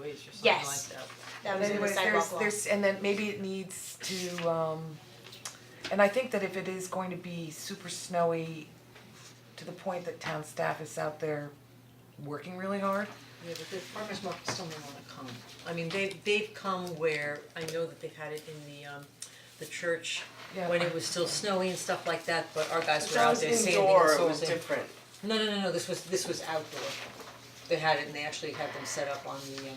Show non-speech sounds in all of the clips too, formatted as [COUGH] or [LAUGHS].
trees or something like Yes. that. That was in the Anyways, sidewalk law. there's there's and then maybe it needs to um and I think that if it is going to be super snowy to the point that town staff is out there working really hard, Yeah, but the farmer's market still may wanna come. I mean, they they've come where, I know that they've had it in the um, the church Yeah. when it was still snowy and stuff like that, but our guys were That out was there sanding and indoor, it salting. was different. No, no, no, no, this was, this was outdoor. They had it and they actually had them set up on the um,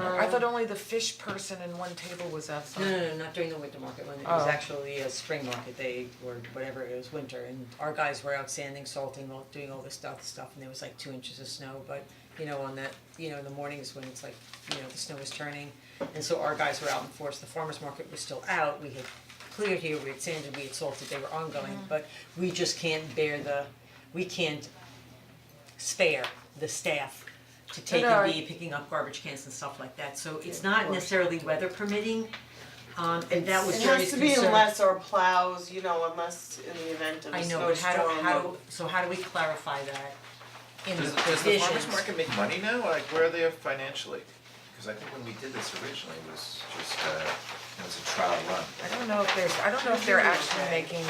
yeah. I thought only the fish person and one table was outside. um, No, no, no, not during the winter market, when it was Oh. actually a spring market, they were, whatever, it was winter, and our guys were out sanding, salting, all, doing all this stuff, stuff, and there was like two inches of snow, but, you know, on that, you know, in the mornings when it's like, you know, the snow was turning, and so our guys were out in force, the farmer's market was still out, we had cleared here, we had sanded, we had salted, they were ongoing, but we just can't bear the, we can't spare the staff to take no, and I- be picking up garbage cans and stuff like that, so it's not necessarily weather permitting, um, and that was It Jerry's has to concern. be unless or plows, you know, unless in the event of a I know, snowstorm. but how do, how or- do, so how do we clarify that in the Does, provisions? does the farmer's market make money now, like where are they financially? Cause I think when we did this originally, it was just, uh, it was a trial run. I don't know if there's I don't know if they're actually making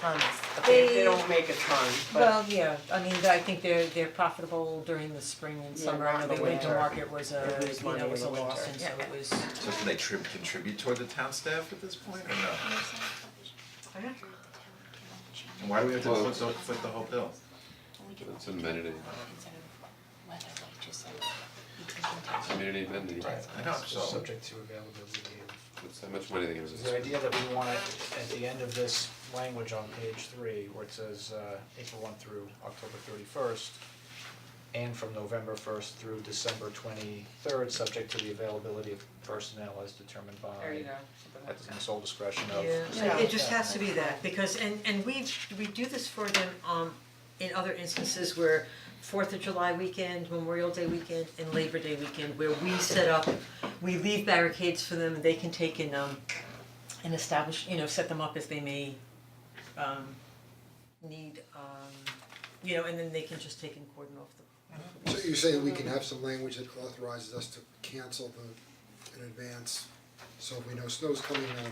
tons, but They they they don't make a ton, but Well, yeah, I mean, I think they're they're profitable during the spring and Yeah, summer, I not know in the the winter winter. market was a, They lose you money know, in was a the loss, winter. and so it was, So do they tri- contribute toward the town staff at this point or no? [LAUGHS] And why do we have to Well- foot the, foot the whole bill? It's amenity, amenity, amenity. I know, so, subject to availability of. It's how much money they give us. The idea that we want at the end of this language on page three, where it says uh April one through October thirty first. And from November first through December twenty third, subject to the availability of personnel as determined by. there you go, something like At the sole discretion of. Yeah, it just has to be that, because, and and we, we do this for them, um, in other instances where Fourth of July weekend, Memorial Day weekend, and Labor Day weekend, where we set up, we leave barricades for them, they can take and um, and establish, you know, set them up as they may um need, um, you know, and then they can just take and cordon off the. So you're saying we can have some language that authorizes us to cancel the, in advance, so if we know snow's coming uh, now,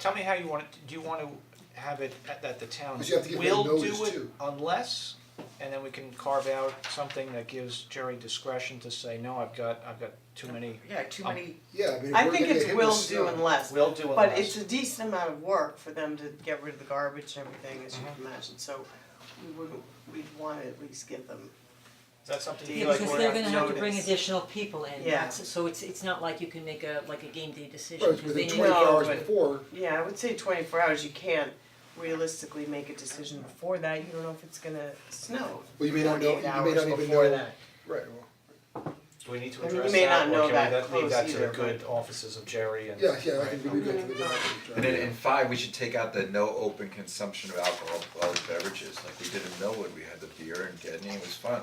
Tell me how you want it, do you wanna have it at that the town 'Cause you have to give them will notice do it too. unless, and then we can carve out something that gives Jerry discretion to say, no, I've got, I've got too many. yeah, Oh. too many yeah, I mean, if I we're think gonna get it's hit with will snow- do unless. Will do But unless. it's a decent amount of work for them to get rid of the garbage and everything, as you Mm-hmm. can imagine, so we would, we'd wanna at least give them. Is that something Yeah, you Yeah, like? because we're they're not gonna have to bring noticed. additional people in, Yeah. that's, so it's it's not like you can make a, like a game day decision, Right, it's 'cause they within need twenty No, hours but- before, Yeah, I would say twenty-four hours, you can't realistically make a decision before that, you don't know if it's gonna snow. Well, you may not know- 48 you may not hours even before know- that. right, well, Do we need to I mean, you address may not that, know or that can we let- close leave that to either, the good offices of Jerry and? yeah, yeah, I Right. think we would go to the. and then in five, we should take out the no open consumption of alcoholic beverages, like we did in Millwood, we had the beer and Gedney, it was fun.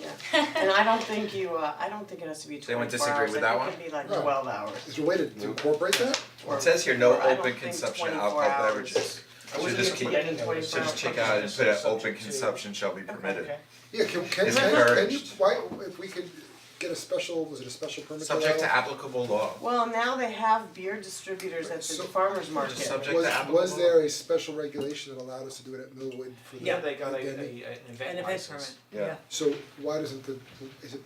Yeah, and I don't think you, uh, I don't think it has to be They won't twenty-four hours, disagree with I that think it'd be like No. twelve hours. Is there a way to to incorporate that? or- It says here, no or I don't open think consumption of 24 alcohol hours. beverages, I should wasn't just gonna keep, put any notice. should just check out and put Subject a open to- consumption shall be permitted. Okay. Yeah, can can It's can can you, encouraged. why, if we could get a special, was it a special permit that Subject to allowed? applicable law. Well, now they have beer distributors at the So- farmer's market. Just subject to applicable law. Was was there a special regulation that allowed us to do it at Millwood for the Yeah, they got a, a, Denny? an an event event license. permit, Yeah. yeah. So why doesn't the, is it,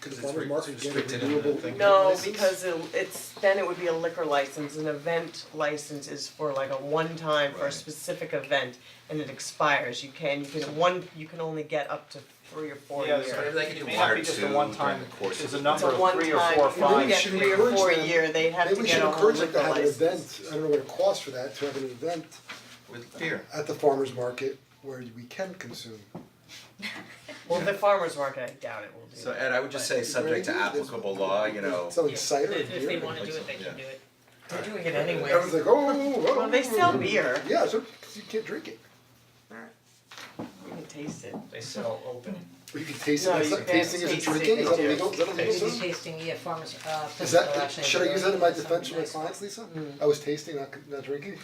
could the It's farmer's re- market get a restricted in the renewable thing. No, license? because it, it's, then it would be a liquor license, an event license is for like a one-time for a Right. specific event, and it expires, you can, you can one, you can only get up to three or four Yeah, years. Maybe there's- they could do it may one not or be just two a one time, during the course there's of a the- It's a number of three or one-time, four or if you don't five. get should three or encourage four a them. year, they have Maybe to we get should a whole encourage liquor them to have an license. event, I don't know what it costs for that, to have an event With beer. at the farmer's market where we can consume. Well, the farmer's market, I doubt it will do So that. Ed, I would just say subject to applicable law, you know. Selling cider and If beer. if they wanna do it, they Yeah. can do it. They're doing it anyway. Everyone's like, oh, oh. Well, they sell beer, Yeah, so you can't drink it, you can taste it. They sell open. but you can taste it, No, That's you not- can't tasting is taste it, drinking, they is that do. illegal, is that illegal, Maybe sir? tasting, yeah, farmers, uh, Is physical that, action, should I use that in my they're- defense for something my nice. clients, Lisa? Mm. I was tasting, not not drinking?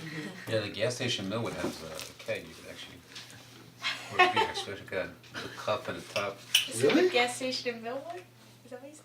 Yeah, the gas station Millwood has a keg, you could actually, or a beer, so it's got a cup and a top. Is it Really? the gas station in Millwood? Is that what you said?